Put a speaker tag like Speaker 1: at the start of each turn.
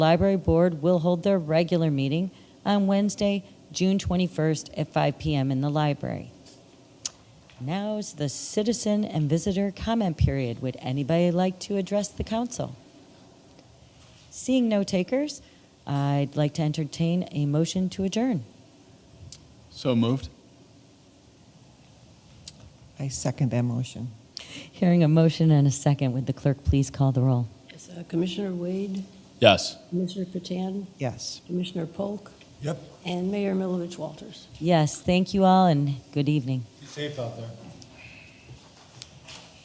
Speaker 1: Library Board will hold their regular meeting on Wednesday, June 21st at 5 PM in the library. Now's the citizen and visitor comment period. Would anybody like to address the council? Seeing no takers, I'd like to entertain a motion to adjourn.
Speaker 2: So moved.
Speaker 3: I second that motion.
Speaker 1: Hearing a motion and a second, would the clerk please call the roll?
Speaker 4: Yes, uh, Commissioner Wade,
Speaker 2: Yes.
Speaker 4: Commissioner Patan,
Speaker 3: Yes.
Speaker 4: Commissioner Polk.
Speaker 5: Yep.
Speaker 4: And Mayor Milovich Walters.
Speaker 1: Yes, thank you all and good evening.
Speaker 5: Be safe out there.